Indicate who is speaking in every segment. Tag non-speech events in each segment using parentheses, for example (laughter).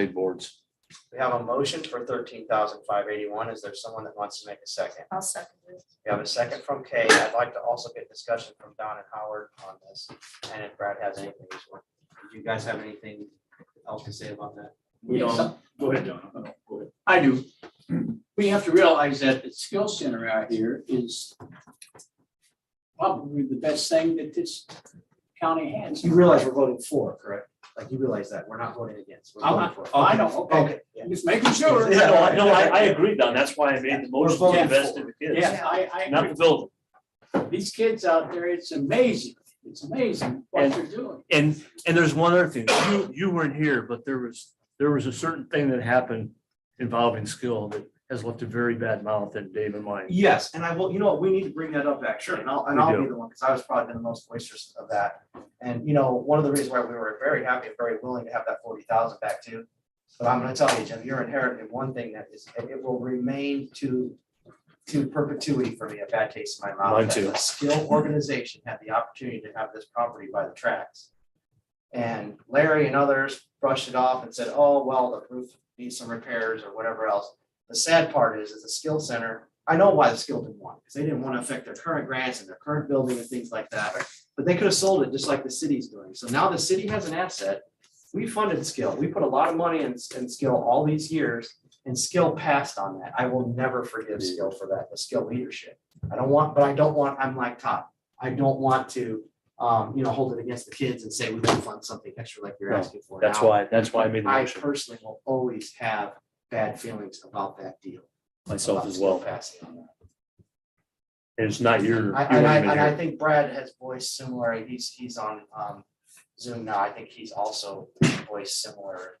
Speaker 1: state boards.
Speaker 2: We have a motion for thirteen thousand five eighty-one. Is there someone that wants to make a second?
Speaker 3: I'll second it.
Speaker 2: We have a second from Kay. I'd like to also get discussion from Don and Howard on this. And if Brad has anything, as well. Do you guys have anything else to say about that?
Speaker 4: We don't, go ahead, John. No, go ahead. I do.
Speaker 5: Hmm.
Speaker 4: We have to realize that the skill center out here is probably the best thing that this county has.
Speaker 2: You realize we're voting for, correct? Like you realize that we're not voting against. We're
Speaker 4: I'm
Speaker 2: voting
Speaker 4: not-
Speaker 2: for.
Speaker 4: I don't, okay,
Speaker 2: Okay, yeah.
Speaker 4: I'm just making sure.
Speaker 2: Yeah.
Speaker 5: No, I, no, I, I agree, Don, that's why I made the motion
Speaker 4: We're
Speaker 5: to
Speaker 4: voting
Speaker 5: invest in the kids,
Speaker 4: Yeah, I, I,
Speaker 5: not the building.
Speaker 4: these kids out there, it's amazing, it's amazing what
Speaker 5: And-
Speaker 4: they're doing.
Speaker 5: And, and there's one other thing, you, you weren't here, but there was, there was a certain thing that happened involving skill that has left a very bad mouth in Dave and mine.
Speaker 2: Yes, and I will, you know, what, we need to bring that up actually, and I'll, and
Speaker 5: We
Speaker 2: I'll
Speaker 5: do.
Speaker 2: be the one, because I was probably the most boisterous of that. And, you know, one of the reasons why we were very happy and very willing to have that forty thousand back too. But I'm gonna tell you, Jim, you're inheriting one thing that is, it it will remain to, to perpetuity for me, a bad taste in my mouth.
Speaker 5: Mine
Speaker 2: that
Speaker 5: too.
Speaker 2: A skilled organization had the opportunity to have this property by the tracks. And Larry and others brushed it off and said, oh, well, the roof needs some repairs or whatever else. The sad part is, is the skill center, I know why the skill didn't want, because they didn't want to affect their current grants and their current building and things like that. But they could have sold it just like the city's doing. So now the city has an asset. We funded skill. We put a lot of money in, in skill all these years and skill passed on that. I will never forgive skill for that, the skill leadership. I don't want, but I don't want, I'm like Todd. I don't want to, um, you know, hold it against the kids and say we didn't fund something extra like you're
Speaker 5: No,
Speaker 2: asking for.
Speaker 5: That's
Speaker 2: now.
Speaker 5: why, that's why I made the
Speaker 2: I
Speaker 5: motion
Speaker 2: personally will always have bad feelings about that deal.
Speaker 5: myself
Speaker 2: about
Speaker 5: as
Speaker 2: skill
Speaker 5: well.
Speaker 2: Passing on that.
Speaker 5: And it's not your. you
Speaker 2: I, and I,
Speaker 5: weren't even
Speaker 2: and I
Speaker 5: here.
Speaker 2: think Brad has voiced similar, he's, he's on, um, Zoom now, I think he's also voiced similar.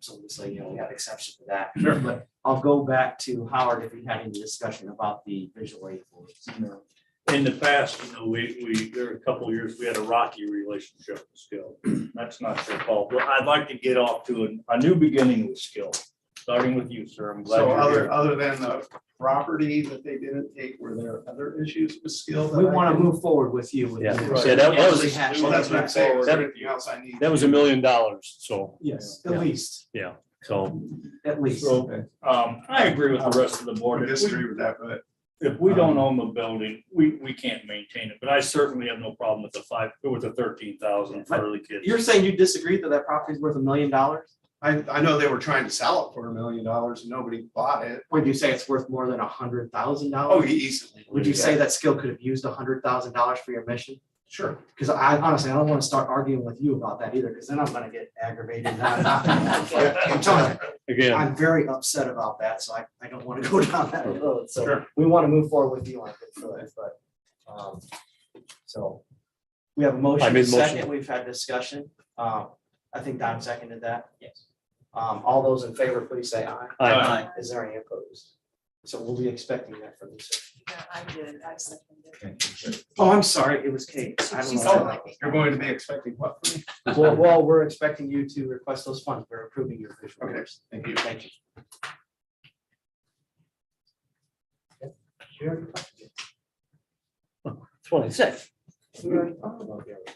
Speaker 2: So, so, you know, we have exception to that. Sure. But I'll go back to Howard if we had any discussion about the visual aid boards.
Speaker 6: in the past, you know, we, we, there were a couple of years, we had a rocky relationship with skill. That's not your fault, but I'd like to get off to an- a new beginning with skill, starting with you, sir. I'm glad
Speaker 7: So
Speaker 6: you're
Speaker 7: other,
Speaker 6: here.
Speaker 7: other than the property that they didn't take, were there other issues with skill? that
Speaker 2: We
Speaker 7: I
Speaker 2: want to
Speaker 7: can-
Speaker 2: move forward with you. with
Speaker 5: Yeah.
Speaker 2: the-
Speaker 5: Yeah, that- that was-
Speaker 2: Rehash
Speaker 7: Well, that's what I'm
Speaker 2: it.
Speaker 7: saying, is
Speaker 5: That-
Speaker 7: there anything else I need?
Speaker 5: That was a million dollars, so,
Speaker 2: Yes,
Speaker 5: Yeah.
Speaker 2: at least,
Speaker 5: so,
Speaker 2: at least.
Speaker 6: So, um, I agree with the rest of the
Speaker 7: I
Speaker 6: board. If we-
Speaker 7: disagree with that, but um,
Speaker 6: If we don't own the building, we, we can't maintain it, but I certainly have no problem with the five, with the thirteen thousand for the kids.
Speaker 2: You're saying you disagree that that property's worth a million dollars?
Speaker 7: I, I know they were trying to sell it for a million dollars and nobody bought it.
Speaker 2: Would you say it's worth more than a hundred thousand
Speaker 7: Oh,
Speaker 2: dollars?
Speaker 7: easily.
Speaker 2: Would you say that skill could have used a hundred thousand dollars for your mission?
Speaker 7: Sure.
Speaker 2: Because I honestly, I don't want to start arguing with you about that either, because then I'm gonna get aggravated.
Speaker 7: (laughs)
Speaker 2: and I'm not gonna have fun. I'm telling you,
Speaker 5: again,
Speaker 2: I'm very upset about that, so I, I don't want to (laughs) go down that road. So
Speaker 6: Sure.
Speaker 2: we want to move forward with you on this, so that's but, um, so. We have a
Speaker 5: I
Speaker 2: motion, a
Speaker 5: made motion.
Speaker 2: second, we've had discussion. Um, I think Don seconded that. Yes. Um, all those in favor, please say aye.
Speaker 5: I,
Speaker 4: Aye.
Speaker 2: Is there any opposed? So we'll be expecting that from you. sir.
Speaker 3: Yeah, I did, I seconded it.
Speaker 2: Oh, I'm sorry, it was Kate. I don't
Speaker 3: She- she
Speaker 2: know.
Speaker 3: said it.
Speaker 7: You're going to be expecting what from me?
Speaker 2: (laughs) Well, well, we're expecting you to request those funds. We're approving your official
Speaker 7: Okay.
Speaker 2: orders.
Speaker 7: Thank you.
Speaker 2: Thank you. We already talked about it.
Speaker 5: twenty-six.
Speaker 2: We already talked about the other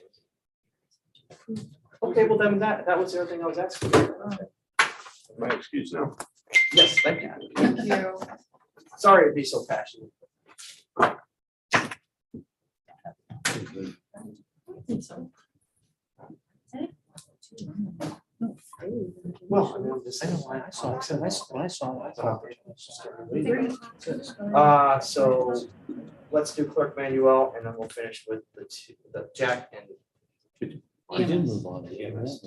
Speaker 2: ones. Okay, well then that, that was everything I was asking.
Speaker 7: My excuse now.
Speaker 2: Yes, thank you.
Speaker 3: Thank you.
Speaker 2: Sorry to be so passionate. Well, I mean, the second line I saw, I said, I saw, I saw. I saw. Uh, so let's do clerk Manuel and then we'll finish with the two, the Jack and
Speaker 5: I did move on. to EMS.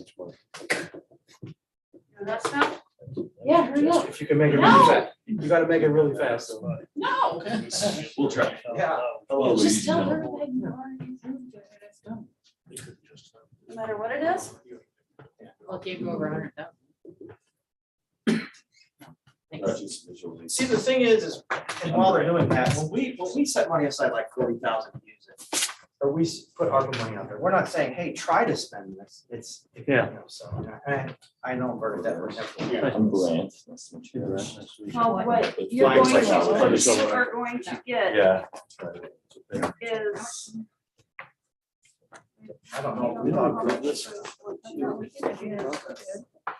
Speaker 3: That's not, yeah, hurry up.
Speaker 2: If you can make it
Speaker 3: No.
Speaker 2: really fast, you gotta make it really fast. though.
Speaker 3: No.
Speaker 6: We'll try.
Speaker 2: Yeah.
Speaker 3: Just tell her that you already approved it, and it's done. No matter what it is. I'll give you over a hundred thousand.
Speaker 2: See, the thing is, is and while they're doing that, when we, when we set money aside like forty thousand to use it, or we s- put ARPA money out there, we're not saying, hey, try to spend this, it's. you
Speaker 5: Yeah.
Speaker 2: know, So, and I know Bernadette would never.
Speaker 8: I'm Grant.
Speaker 3: Well, what you're
Speaker 8: Flying
Speaker 3: going to,
Speaker 8: six hours.
Speaker 3: what you are going to get
Speaker 8: Yeah.
Speaker 3: is.
Speaker 2: I don't know.
Speaker 3: I don't know how much- I don't know, we can do that.